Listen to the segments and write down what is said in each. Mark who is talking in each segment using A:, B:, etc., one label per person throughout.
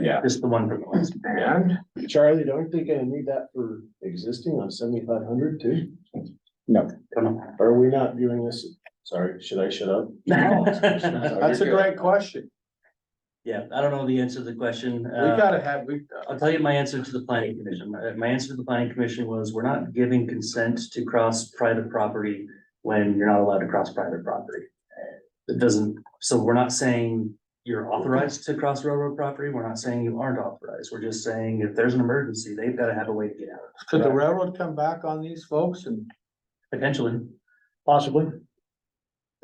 A: Yeah.
B: Just the one from the last.
A: And?
C: Charlie, don't they gonna need that for existing on seventy-five hundred too?
B: Come on.
C: Are we not viewing this, sorry, should I shut up?
A: That's a great question.
B: Yeah, I don't know the answer to the question.
A: We
B: Uh,
A: gotta have, we,
B: I'll tell you my answer to the planning commission. My, my answer to the planning commission was, we're not giving consent to cross private property when you're not allowed to cross private property. It doesn't, so we're not saying you're authorized to cross railroad property. We're not saying you aren't authorized. We're just saying if there's an emergency, they've got to have a way to get out.
A: could the railroad come back on these folks and
B: Potentially,
D: Possibly. In an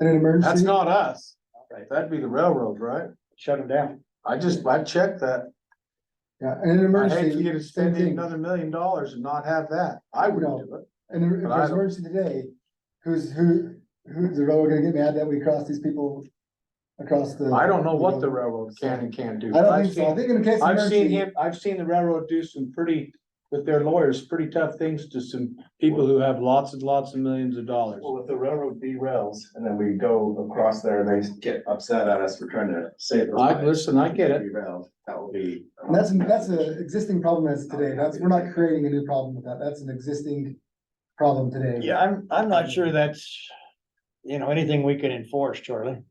A: that's
D: emergency,
A: not us.
B: Right.
A: That'd be the railroad, right?
D: shut them down.
A: I just, I checked that.
D: Yeah, in an
A: I hate for
D: emergency,
A: you to spend
D: thing.
A: another million dollars and not have that. I wouldn't
D: No.
A: do it.
D: in an
A: But I don't-
D: emergency today, who's, who, who's the railroad gonna get mad that we cross these people across the?
A: I don't know what the railroad can and can't do.
D: I don't
A: I've
D: think so.
A: seen-
D: I think in case of
A: I've seen
D: emergency,
A: him, I've seen the railroad do some pretty, with their lawyers, pretty tough things to some people who have lots and lots of millions of dollars.
C: Well, if the railroad derails and then we go across there and they get upset at us for trying to save. their
A: I,
C: lives,
A: listen, I get it.
C: Derailed, that will be.
D: and that's, that's an existing problem as today. That's, we're not creating a new problem with that. That's an existing problem today.
E: Yeah, I'm, I'm not sure that's, you know, anything we can enforce, Charlie.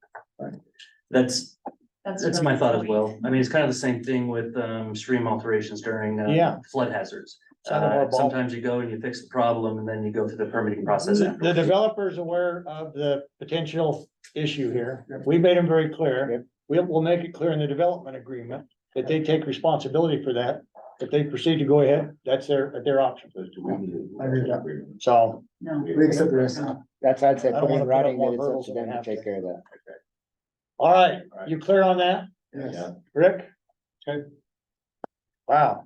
B: that's, That's my
F: another
B: thought as
F: point.
B: well. I mean, it's kind of the same thing with um stream alterations during uh
E: Yeah.
B: flood hazards.
E: It's out of our
B: Uh,
E: ball-
B: sometimes you go and you fix the problem and then you go through the permitting process.
E: The the
B: afterwards.
E: developer's aware of the potential issue here. We made them very clear. We will make it clear in the development agreement that they take responsibility for that. If they proceed to go ahead, that's their, their option.
D: I agree with that.
E: So
F: No.
D: We accept the rest.
G: That's, I'd say,
E: I don't
G: put
E: wanna put
G: in
E: up
G: writing
E: more
G: that it's up
E: hurdles
G: to
E: than
G: them
E: we
G: to
E: have
G: take
E: to.
G: care of that.
E: All right, you clear on that,
D: Yes.
E: Rick? Okay. Wow.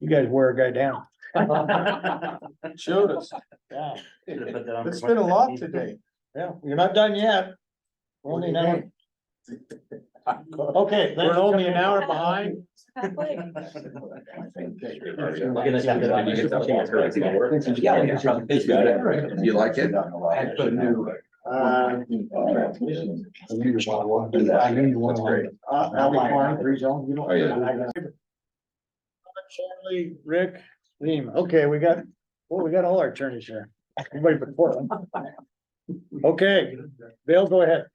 E: You guys wear a guy down.
B: uh,
A: Showed us.
E: Yeah,
B: Should've put that on
A: It's
B: for
A: been a lot
B: 2019.
A: today.
E: yeah, you're not done yet. We're
C: What do
E: only
C: you
E: an hour. Okay.
A: We're only an hour behind.
B: Look at that.
C: Did you get that thing that's correct?
B: Yeah, yeah, probably.
C: You like it? I had put a new.
E: Uh,
C: That's great.
E: uh, outline.
C: Oh, yeah.
E: Charlie, Rick, Liam, okay, we got, well, we got all our attorneys here, everybody but Portland. Okay, Bill, go ahead.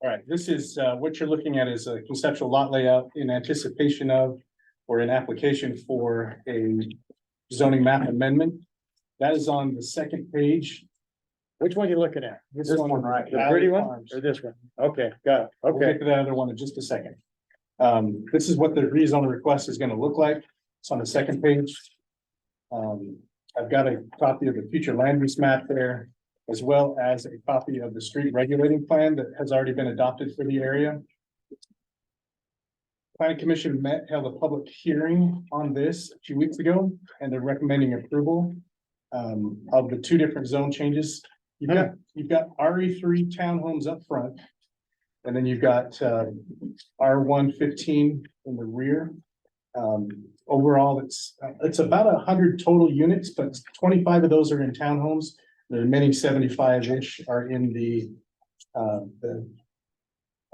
H: All right, this is, uh, what you're looking at is a conceptual lot layout in anticipation of or an application for a zoning map amendment. That is on the second page.
E: Which one you looking at?
H: This one right.
E: The pretty one or this one? Okay, got it,
H: We'll
E: okay.
H: get to that other one in just a second. Um, this is what the rezone request is gonna look like. It's on the second page. Um, I've got a copy of the future land use map there, as well as a copy of the street regulating plan that has already been adopted for the area. Planning Commission met, held a public hearing on this a few weeks ago, and they're recommending approval um, of the two different zone changes. You've got, you've got RE three townhomes up front. And then you've got um, R one fifteen in the rear. Um, Overall, it's, uh, it's about a hundred total units, but twenty-five of those are in townhomes. The remaining seventy-five-ish are in the uh, the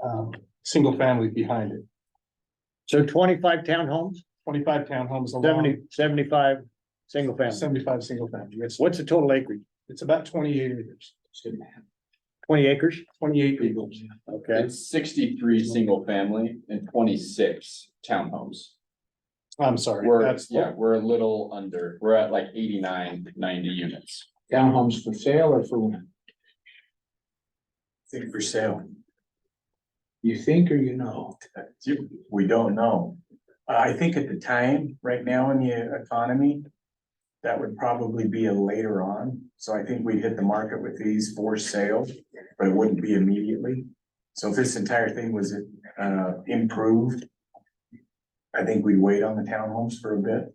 H: um, single family behind it.
E: So twenty-five townhomes,
H: Twenty-five townhomes
E: seventy,
H: along,
E: seventy-five, single family.
H: seventy-five single family. It's,
E: What's the total acreage?
H: it's about twenty-eight acres,
E: Twenty acres?
H: twenty-eight acres.
E: Okay,
I: sixty-three single family and twenty-six townhomes.
H: I'm sorry,
I: We're,
H: that's,
I: yeah, we're a little under, we're at like 89, 90 units.
A: Townhomes for sale or for?
C: Think for sale.
A: You think or you know?
C: We don't know. I think at the time, right now in the economy, that would probably be a later on. So I think we'd hit the market with these for sale, but it wouldn't be immediately. So if this entire thing was uh improved, I think we'd wait on the townhomes for a bit.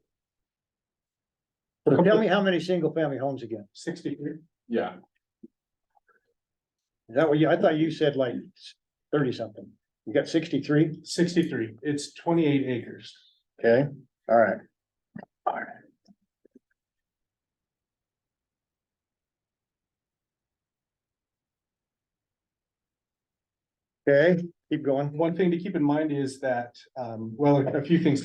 E: so tell me how many single family homes again?
H: Sixty-three.
I: Yeah,
E: Is that what you, I thought you said like thirty something. You got sixty-three?
H: 63, it's twenty-eight acres.
E: Okay, all right. Okay, keep going.
H: One thing to keep in mind is that, um, well, a few things to